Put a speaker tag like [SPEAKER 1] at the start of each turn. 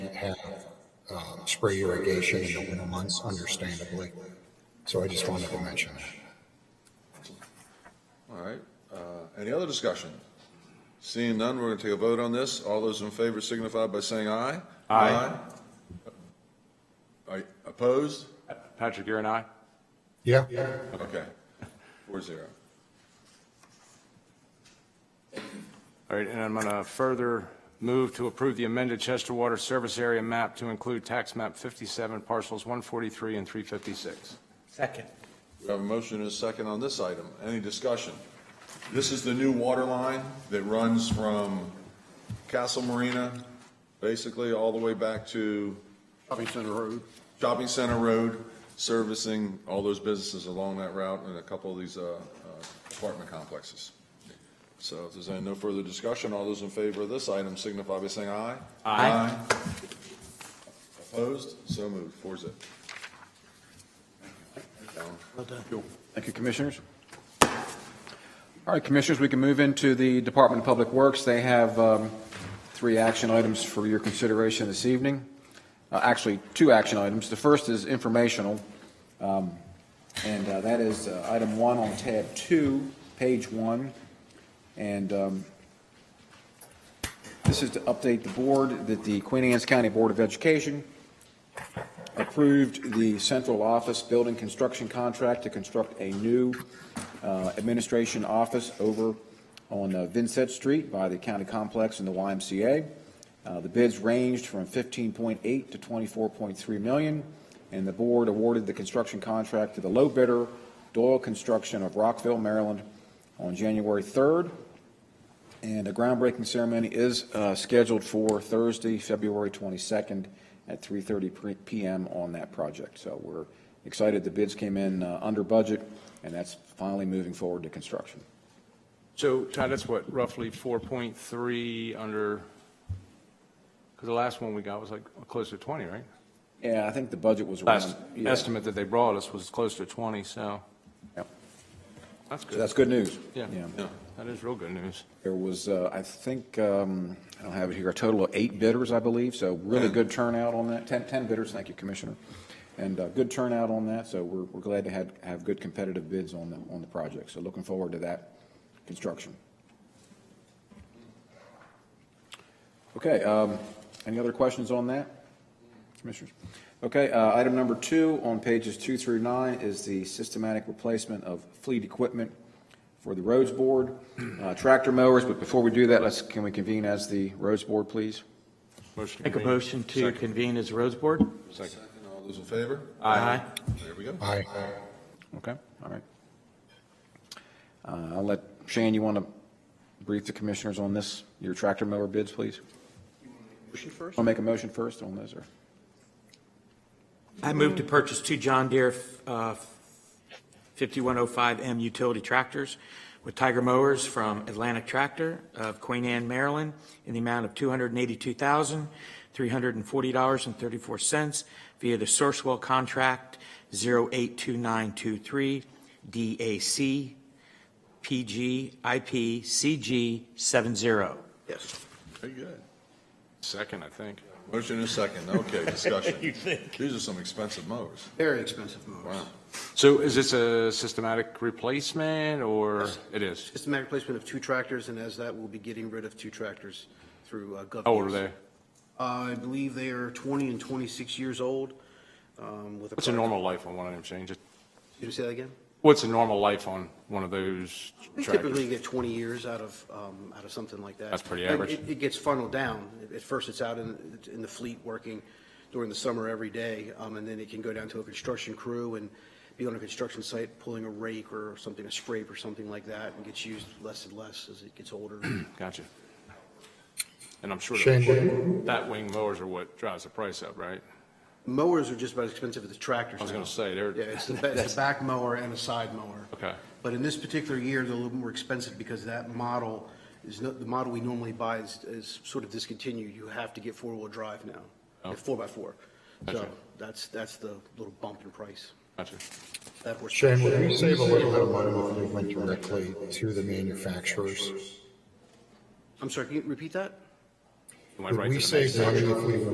[SPEAKER 1] can't have um, spray irrigation in the winter months, understandably. So I just wanted to mention that.
[SPEAKER 2] All right, uh, any other discussion? Seeing none, we're going to take a vote on this. All those in favor signify by saying aye. Aye. Are you opposed?
[SPEAKER 3] Patrick, you're an aye?
[SPEAKER 1] Yeah?
[SPEAKER 2] Okay, four zero.
[SPEAKER 3] All right, and I'm going to further move to approve the amended Chester Water Service Area map to include tax map 57, parcels 143 and 356.
[SPEAKER 4] Second.
[SPEAKER 2] We have a motion and a second on this item. Any discussion? This is the new water line that runs from Castle Marina, basically all the way back to
[SPEAKER 5] Shopping Center Road.
[SPEAKER 2] Shopping Center Road, servicing all those businesses along that route and a couple of these uh, uh, apartment complexes. So if there's any no further discussion, all those in favor of this item signify by saying aye. Aye. Opposed? So moved. Four zip.
[SPEAKER 5] Thank you, Commissioners. All right, Commissioners, we can move into the Department of Public Works. They have um, three action items for your consideration this evening. Uh, Actually, two action items. The first is informational, um, and uh, that is uh, item one on tab two, page one. And um, this is to update the board that the Queen Anne's County Board of Education approved the central office building construction contract to construct a new uh, administration office over on uh, Vincent Street by the county complex and the YMCA. Uh, The bids ranged from 15.8 to 24.3 million, and the board awarded the construction contract to the low bidder, Doyle Construction of Rockville, Maryland, on January 3rd. And a groundbreaking ceremony is uh, scheduled for Thursday, February 22nd at 3:30 pre- PM on that project. So we're excited. The bids came in uh, under budget, and that's finally moving forward to construction.
[SPEAKER 3] So Todd, that's what, roughly 4.3 under, because the last one we got was like close to 20, right?
[SPEAKER 5] Yeah, I think the budget was around.
[SPEAKER 3] Last
[SPEAKER 5] yeah.
[SPEAKER 3] estimate that they brought us was close to 20, so
[SPEAKER 5] Yep.
[SPEAKER 3] that's
[SPEAKER 5] So
[SPEAKER 3] good.
[SPEAKER 5] that's good news.
[SPEAKER 3] Yeah, that is real good news.
[SPEAKER 5] There was, uh, I think, um, I don't have it here, a total of eight bidders, I believe, so really good turnout on that, 10 10 bidders, thank you, Commissioner. And uh, good turnout on that, so we're we're glad to have have good competitive bids on the on the project. So looking forward to that construction. Okay, um, any other questions on that, Commissioners? Okay, uh, item number two on pages two through nine is the systematic replacement of fleet equipment for the roads board, uh, tractor mowers, but before we do that, let's, can we convene as the roads board, please?
[SPEAKER 3] Motion to
[SPEAKER 4] Make a
[SPEAKER 3] convene.
[SPEAKER 4] motion to convene as Rose Board?
[SPEAKER 2] Second. All those in favor?
[SPEAKER 4] Aye.
[SPEAKER 2] There we go.
[SPEAKER 1] Aye.
[SPEAKER 5] Okay, all right. Uh, I'll let, Shane, you want to brief the commissioners on this, your tractor mower bids, please? Motion first? I'll make a motion first on those, or?
[SPEAKER 4] I move to purchase two John Deere uh, 5105M utility tractors with Tiger mowers from Atlantic Tractor of Queen Anne, Maryland, in the amount of $282,340.34 via the Sourcewell Contract 082923 DAC PG IP CG 70. Yes.
[SPEAKER 2] Very good.
[SPEAKER 3] Second, I think.
[SPEAKER 2] Motion and a second. Okay, discussion. You think? These are some expensive mowers.
[SPEAKER 6] Very expensive mowers.
[SPEAKER 2] Wow.
[SPEAKER 3] So is this a systematic replacement, or it is?
[SPEAKER 6] Just a matter of placement of two tractors, and as that, we'll be getting rid of two tractors through uh, gov.
[SPEAKER 3] How old Oh, are
[SPEAKER 6] deals.
[SPEAKER 3] they?
[SPEAKER 6] Uh, I believe they are 20 and 26 years old. um, with
[SPEAKER 3] What's a normal life on one of them, Shane? Just-
[SPEAKER 6] Did you say that again?
[SPEAKER 3] What's a normal life on one of those
[SPEAKER 6] We
[SPEAKER 3] tractors?
[SPEAKER 6] typically get 20 years out of, um, out of something like that.
[SPEAKER 3] That's pretty
[SPEAKER 6] And
[SPEAKER 3] average.
[SPEAKER 6] It, it gets funneled down. At first, it's out in, in the fleet working during the summer every day, um, and then it can go down to a construction crew and be on a construction site pulling a rake or something, a scrape or something like that, and gets used less and less as it gets older.
[SPEAKER 3] Gotcha. And I'm sure
[SPEAKER 1] Shane,
[SPEAKER 3] that
[SPEAKER 1] did-
[SPEAKER 3] that wing mowers are what drives the price up, right?
[SPEAKER 6] Mowers are just about as expensive as the tractors.
[SPEAKER 3] I was gonna
[SPEAKER 6] now.
[SPEAKER 3] say, they're-
[SPEAKER 6] Yeah, it's the, ba- it's the back mower and a side mower.
[SPEAKER 3] Okay.
[SPEAKER 6] But in this particular year, they're a little more expensive because that model is not, the model we normally buy is, is sort of discontinued. You have to get four-wheel drive now,
[SPEAKER 3] Oh.
[SPEAKER 6] Like four by four. So
[SPEAKER 3] Gotcha.
[SPEAKER 6] that's, that's the little bump in price.
[SPEAKER 3] Gotcha.
[SPEAKER 6] That horse-
[SPEAKER 1] Shane, would we save a little bit of money if we went directly to the manufacturers?
[SPEAKER 6] I'm sorry, can you repeat that?
[SPEAKER 3] You went
[SPEAKER 1] Would
[SPEAKER 3] right to
[SPEAKER 1] we
[SPEAKER 3] the next.
[SPEAKER 1] save money if we went